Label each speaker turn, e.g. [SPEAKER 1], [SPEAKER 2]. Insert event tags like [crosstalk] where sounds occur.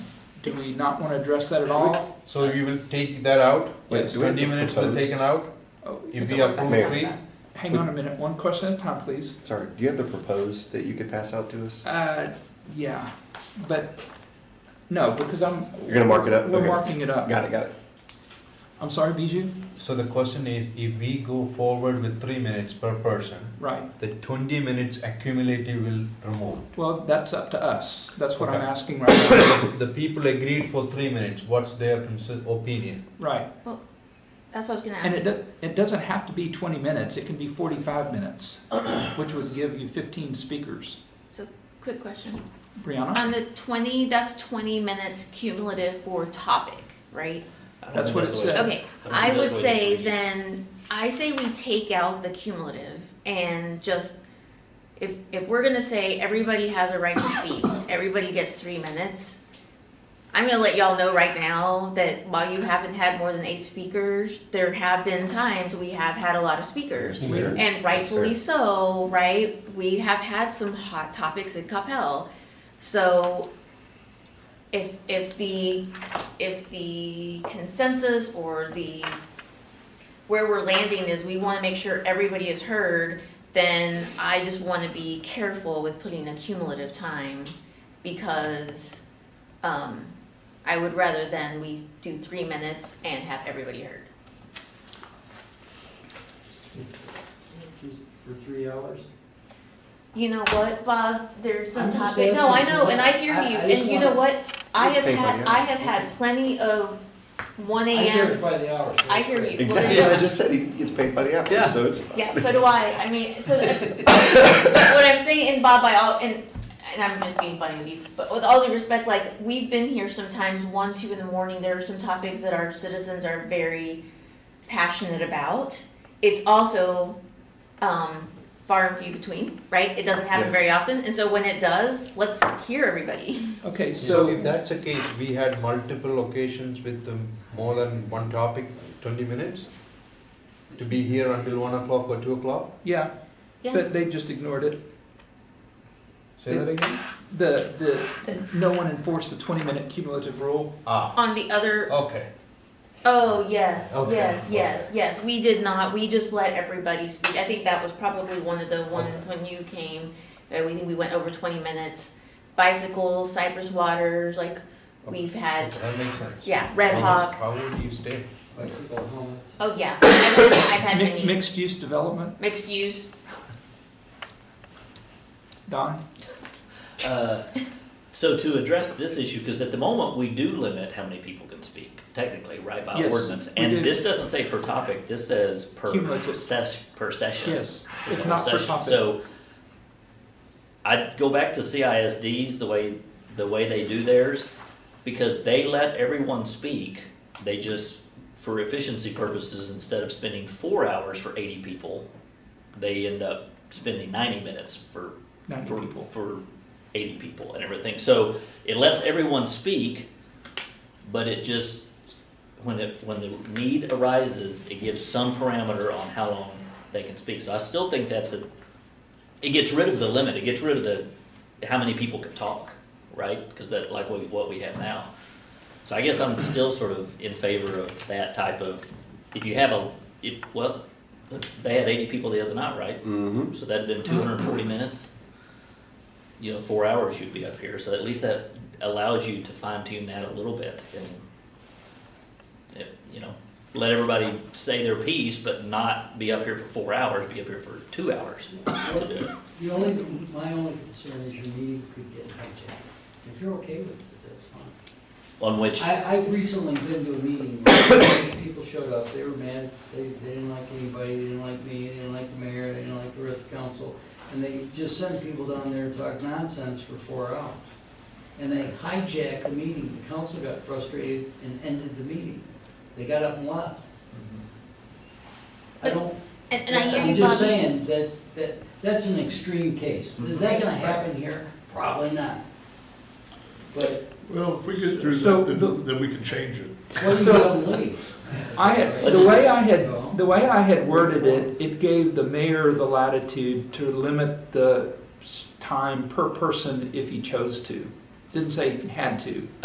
[SPEAKER 1] Do we not want to address that at all?
[SPEAKER 2] So you will take that out?
[SPEAKER 3] Wait,
[SPEAKER 2] Yes.
[SPEAKER 3] do we have to
[SPEAKER 2] Twenty minutes will
[SPEAKER 3] propose?
[SPEAKER 2] taken out?
[SPEAKER 1] Oh,
[SPEAKER 2] If we approve
[SPEAKER 3] Mayor.
[SPEAKER 2] three?
[SPEAKER 1] Hang on a minute, one question at a time, please.
[SPEAKER 3] Sorry, do you have the proposed that you could pass out to us?
[SPEAKER 1] Uh, yeah, but, no, because I'm.
[SPEAKER 3] You're gonna mark it up?
[SPEAKER 1] We're
[SPEAKER 3] Okay.
[SPEAKER 1] marking it up.
[SPEAKER 3] Got it, got it.
[SPEAKER 1] I'm sorry, Bijou?
[SPEAKER 2] So the question is, if we go forward with three minutes per person,
[SPEAKER 1] Right,
[SPEAKER 2] the twenty minutes accumulative will remove. [coughs]
[SPEAKER 1] well, that's up to us. That's what I'm
[SPEAKER 2] Okay.
[SPEAKER 1] asking right now.
[SPEAKER 2] The people agreed for three minutes, what's their consi- opinion?
[SPEAKER 1] Right,
[SPEAKER 4] That's what I was gonna
[SPEAKER 1] and it,
[SPEAKER 4] ask.
[SPEAKER 1] do- it doesn't have to be twenty minutes, it can be forty-five minutes, which would give you fifteen speakers.
[SPEAKER 4] Quick question.
[SPEAKER 1] Brianna,
[SPEAKER 4] On the twenty, that's twenty minutes cumulative for topic, right?
[SPEAKER 1] that's what it said.
[SPEAKER 4] Okay, I would say then, I say we take out the cumulative and just, if, if we're gonna say everybody has a right to speak, everybody gets three minutes. I'm gonna let y'all know right now that while you haven't had more than eight speakers, there have been times we have had a lot of speakers.
[SPEAKER 1] Fair.
[SPEAKER 4] And rightfully so, right? We have had some hot topics in Capel. So if if the if the consensus or the where we're landing is we want to make sure everybody is heard, then I just want to be careful with putting a cumulative time because um, I would rather than we do three minutes and have everybody heard.
[SPEAKER 5] For three hours?
[SPEAKER 4] You know what, Bob, there's some
[SPEAKER 5] I'm just
[SPEAKER 4] topic, no, I
[SPEAKER 5] asking
[SPEAKER 4] know, and I
[SPEAKER 5] because
[SPEAKER 4] hear
[SPEAKER 5] I-
[SPEAKER 4] you,
[SPEAKER 5] I just
[SPEAKER 4] and you know
[SPEAKER 5] wanna-
[SPEAKER 4] what? I
[SPEAKER 3] Let's
[SPEAKER 4] have
[SPEAKER 3] take
[SPEAKER 4] had,
[SPEAKER 3] it,
[SPEAKER 4] I
[SPEAKER 3] yeah.
[SPEAKER 4] have had plenty of one
[SPEAKER 5] I hear it
[SPEAKER 4] AM,
[SPEAKER 5] by the hour. so
[SPEAKER 4] I hear you.
[SPEAKER 3] Exactly,
[SPEAKER 4] Yeah.
[SPEAKER 3] I just said he gets paid by the hour,
[SPEAKER 5] Yeah.
[SPEAKER 3] so it's.
[SPEAKER 4] yeah, so do I, I mean, so,
[SPEAKER 5] [laughs]
[SPEAKER 4] what I'm saying, and Bob, I all, and, and I'm just being funny with you, but with all due respect, like, we've been here sometimes one, two in the morning, there are some topics that our citizens are very passionate about. It's also, um, far and few between, right? It doesn't happen
[SPEAKER 3] Yeah.
[SPEAKER 4] very often, and so when it does, let's hear everybody.
[SPEAKER 1] Okay,
[SPEAKER 2] So if
[SPEAKER 1] so,
[SPEAKER 2] that's the case, we had multiple occasions with um, more than one topic, twenty minutes? To be here until one o'clock or two o'clock?
[SPEAKER 1] yeah,
[SPEAKER 4] Yeah.
[SPEAKER 1] but they just ignored it.
[SPEAKER 2] Say that again?
[SPEAKER 1] The, the, no one enforced the twenty-minute cumulative rule.
[SPEAKER 2] Ah,
[SPEAKER 4] On the other,
[SPEAKER 2] okay.
[SPEAKER 4] oh, yes,
[SPEAKER 2] Okay,
[SPEAKER 4] yes, yes, yes, we did not, we just let everybody speak, I think that was probably one of the ones when you came, that we, we went over twenty minutes. Bicycles, Cypress Waters, like, we've had,
[SPEAKER 2] Okay, That makes sense.
[SPEAKER 4] yeah, Red
[SPEAKER 2] How
[SPEAKER 4] Hawk,
[SPEAKER 2] was- How would you stay?
[SPEAKER 5] Bicycle helmet.
[SPEAKER 4] oh, yeah, I've had- I've had
[SPEAKER 1] Mi-
[SPEAKER 4] many,
[SPEAKER 1] Mixed-use development,
[SPEAKER 4] mixed use,
[SPEAKER 1] Don?
[SPEAKER 6] Uh, So to address this issue, because at the moment, we do limit how many people can speak, technically, right, by
[SPEAKER 1] Yes,
[SPEAKER 6] ordinance?
[SPEAKER 1] we do.
[SPEAKER 6] And this doesn't say per topic, this says per
[SPEAKER 1] Cumulative.
[SPEAKER 6] ses, per session.
[SPEAKER 1] Yes,
[SPEAKER 6] for the
[SPEAKER 1] it's
[SPEAKER 6] whole
[SPEAKER 1] not per
[SPEAKER 6] session.
[SPEAKER 1] topic.
[SPEAKER 6] So I'd go back to CISDs, the way, the way they do theirs, because they let everyone speak. They just, for efficiency purposes, instead of spending four hours for eighty people, they end up spending ninety minutes for
[SPEAKER 1] Ninety
[SPEAKER 6] for,
[SPEAKER 1] people.
[SPEAKER 6] for 80 people and everything. So it lets everyone speak, but it just, when it, when the need arises, it gives some parameter on how long they can speak. So I still think that's a, it gets rid of the limit, it gets rid of the, how many people can talk, right? Because that, like what, what we have now. So I guess I'm still sort of in favor of that type of, if you have a, if, well, they had 80 people the other night, right?
[SPEAKER 3] Mm-hmm.
[SPEAKER 6] So that'd been two hundred and forty minutes. You know, four hours you'd be up here, so at least that allows you to fine tune that a little bit and, it- you know, let everybody say their piece, but not be up here for four hours, be up here for two hours to do it.
[SPEAKER 5] The only, my only concern is your meeting could get hijacked. If you're okay with it, that's fine.
[SPEAKER 6] On which,
[SPEAKER 5] I, I've recently been to a meeting, [coughs] where people showed up, they were mad, they, they didn't like anybody, they didn't like me, they didn't like the mayor, they didn't like the rest of council. And they just sent people down there to talk nonsense for four hours. And they hijacked the meeting, the council got frustrated and ended the meeting. They got up and left. I don't,
[SPEAKER 4] and, and I hear
[SPEAKER 5] I'm
[SPEAKER 4] you, Bob,
[SPEAKER 5] just saying that, that, that's an extreme case. Is that gonna happen here? Probably not. But
[SPEAKER 7] Well, if we get through
[SPEAKER 1] So
[SPEAKER 7] that, then,
[SPEAKER 1] the-
[SPEAKER 7] then we can change it.
[SPEAKER 5] what do you gonna leave?
[SPEAKER 1] I had, the way I had, the way I had worded it, it gave the mayor the latitude to limit the s- time per person if he chose to. Didn't say had to.